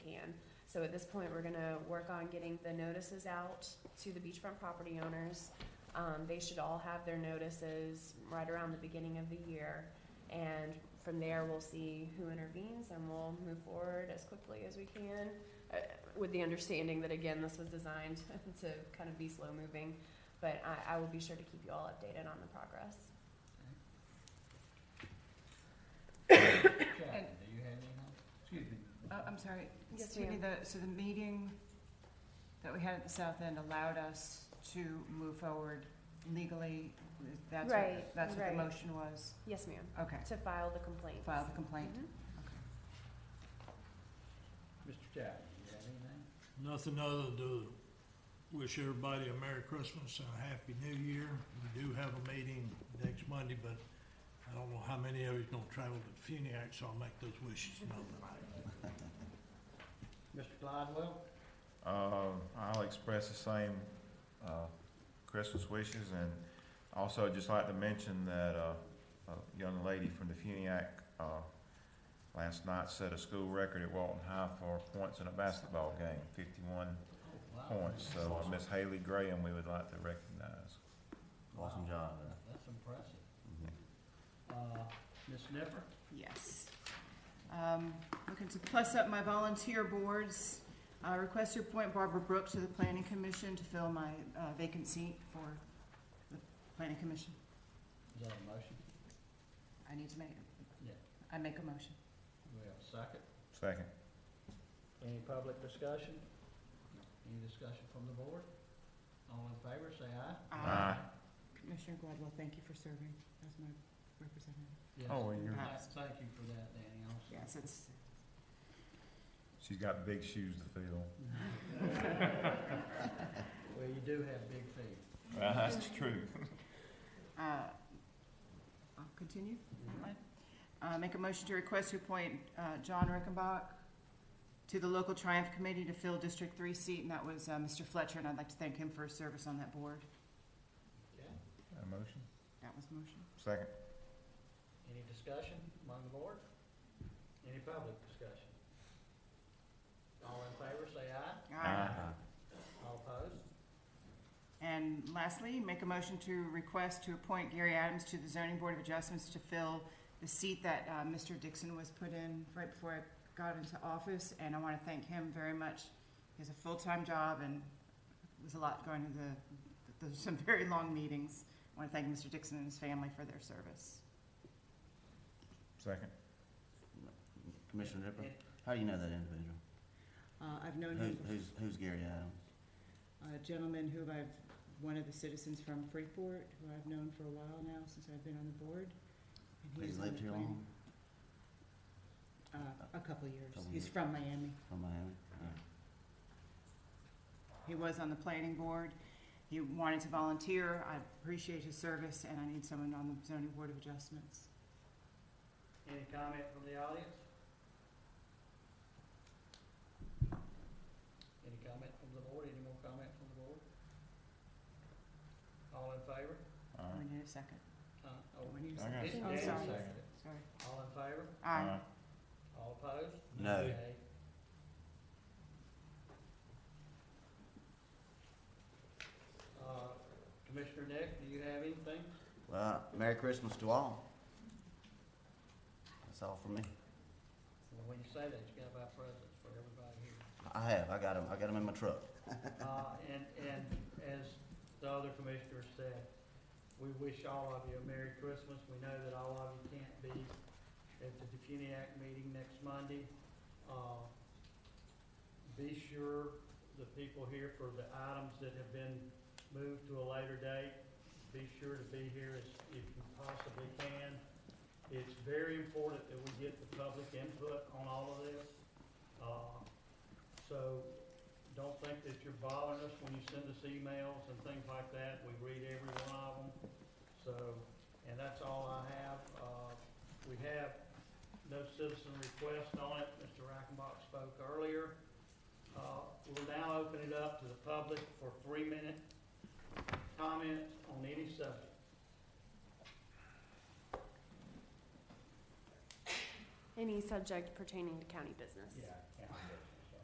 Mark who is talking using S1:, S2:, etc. S1: So at this point, we're gonna work on getting the notices out to the beachfront property owners. Um, they should all have their notices right around the beginning of the year. And from there, we'll see who intervenes and we'll move forward as quickly as we can. uh, With the understanding that again, this was designed to kind of be slow moving, but I, I will be sure to keep you all updated on the progress.
S2: Karen, do you have any? Excuse me.
S3: Oh, I'm sorry.
S1: Yes,
S3: Excuse me, the- So the meeting that we had at the south end allowed us to move forward legally? That's
S1: Right,
S3: what, that's what
S1: right.
S3: the motion was?
S1: Yes, ma'am,
S3: Okay,
S1: to file the Mm-hmm. complaint.
S3: file the complaint?
S2: Mr. Chapman, do you have anything?
S4: Nothing other than to wish everybody a Merry Christmas and a Happy New Year. We do have a meeting next Monday, but I don't know how many of you's gonna travel to Funiac, so I'll make those wishes known tonight.
S2: Mr. Gladwell?
S5: Uh, I'll express the same, uh, Christmas wishes and also just like to mention that, uh, a young lady from the Funiac, uh, last night set a school record at Walton High for points in a basketball game, fifty-one points. So uh, Miss Haley Graham, we would like to recognize.
S2: Awesome job. That's impressive. Uh, Ms. Nipper?
S3: Yes. Um, Looking to plus up my volunteer boards. Uh, Request to appoint Barbara Brooks to the Planning Commission to fill my uh, vacant seat for the Planning Commission.
S2: Is that a motion?
S3: I need to make,
S2: Yeah.
S3: I make a motion.
S2: Do we have a second?
S5: Second.
S2: Any public discussion? Any discussion from the board? All in favor, say aye.
S5: Aye.
S3: Commissioner Gladwell, thank you for serving as my representative.
S2: Yes.
S5: Oh, well, you're-
S2: Tha- Thank you for that, Danny, also.
S3: Yes, it's,
S5: She's got big shoes to fill.
S2: Well, you do have big feet.
S5: That's true.
S3: uh, I'll continue. Uh, make a motion to request to appoint, uh, John Rickenbach to the local Triumph Committee to fill District Three seat, and that was, uh, Mr. Fletcher, and I'd like to thank him for his service on that board.
S2: Okay.
S5: A motion?
S3: That was the motion.
S5: Second.
S2: Any discussion among the board? Any public discussion? All in favor, say aye. All opposed?
S3: And lastly, make a motion to request to appoint Gary Adams to the zoning board of adjustments to fill the seat that, uh, Mr. Dixon was put in right before I got into office, and I wanna thank him very much. He has a full-time job and it was a lot going to the, there's some very long meetings. I wanna thank Mr. Dixon and his family for their service.
S5: Second.
S6: Commissioner Ripper, how do you know that individual?
S3: Uh, I've known
S6: Who,
S3: him,
S6: who's, who's Gary Adams?
S3: a gentleman who I've, one of the citizens from Freeport, who I've known for a while now, since I've been on the board. and he
S6: He's
S3: was on
S6: lived
S3: the
S6: here
S3: planning-
S6: long,
S3: Uh, a couple of years.
S6: Couple
S3: He's
S6: years.
S3: from Miami.
S6: from Miami? Yeah.
S3: He was on the planning board. He wanted to volunteer. I appreciate his service, and I need someone on the zoning board of adjustments.
S2: Any comment from the audience? Any comment from the board? Any more comment from the board? All in favor?
S5: All
S3: We
S5: right.
S3: need a second.
S2: Uh,
S3: Do
S2: oh,
S3: we need a
S5: I
S3: second?
S5: got
S2: Dan-
S5: you.
S3: I'm
S2: Dan
S3: sorry.
S2: seconded it.
S3: Sorry.
S2: All in favor?
S5: All
S3: Aye.
S5: right.
S2: All opposed?
S6: No.
S4: Oh.
S2: Okay. Uh, Commissioner Nick, do you have anything?
S6: Well, Merry Christmas to all. That's all from me.
S2: Well, When you say that, you gotta buy presents for everybody here.
S6: I have, I got them, I got them in my truck.
S2: Uh, and, and as the other commissioner said, we wish all of you a Merry Christmas. We know that all of you can't be at the Defuniac meeting next Monday. Uh, be sure the people here for the items that have been moved to a later date, be sure to be here as, if you possibly can. It's very important that we get the public input on all of this. Uh, so don't think that you're bothering us when you send us emails and things like that. We read every one of them. So, and that's all I have. Uh, we have no citizen request on it. Mr. Rackenbach spoke earlier. Uh, we'll now open it up to the public for three-minute comments on any subject.
S1: Any subject pertaining to county business.
S2: Yeah.